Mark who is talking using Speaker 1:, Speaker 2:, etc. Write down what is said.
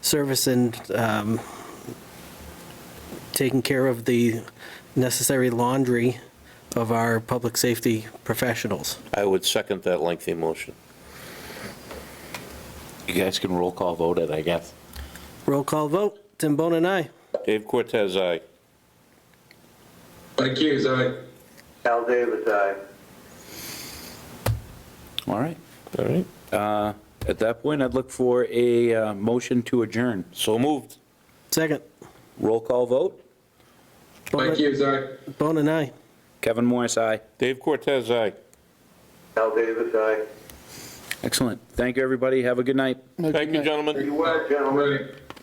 Speaker 1: service and um, taking care of the necessary laundry of our public safety professionals.
Speaker 2: I would second that lengthy motion.
Speaker 3: You guys can roll call vote it, I guess.
Speaker 1: Roll call vote, Tim Bone and I.
Speaker 2: Dave Cortez, aye.
Speaker 4: Mike Hughes, aye.
Speaker 5: Al Davis, aye.
Speaker 3: All right.
Speaker 2: All right,
Speaker 3: At that point, I'd look for a uh, motion to adjourn.
Speaker 2: so moved.
Speaker 1: Second,
Speaker 3: Roll call vote.
Speaker 4: Mike Hughes, aye.
Speaker 1: Bone and I.
Speaker 3: Kevin Morris, aye.
Speaker 2: Dave Cortez, aye.
Speaker 5: Al Davis, aye.
Speaker 3: Excellent. Thank you, everybody. Have a good night.
Speaker 2: Thank you, gentlemen.
Speaker 4: Well, gentlemen.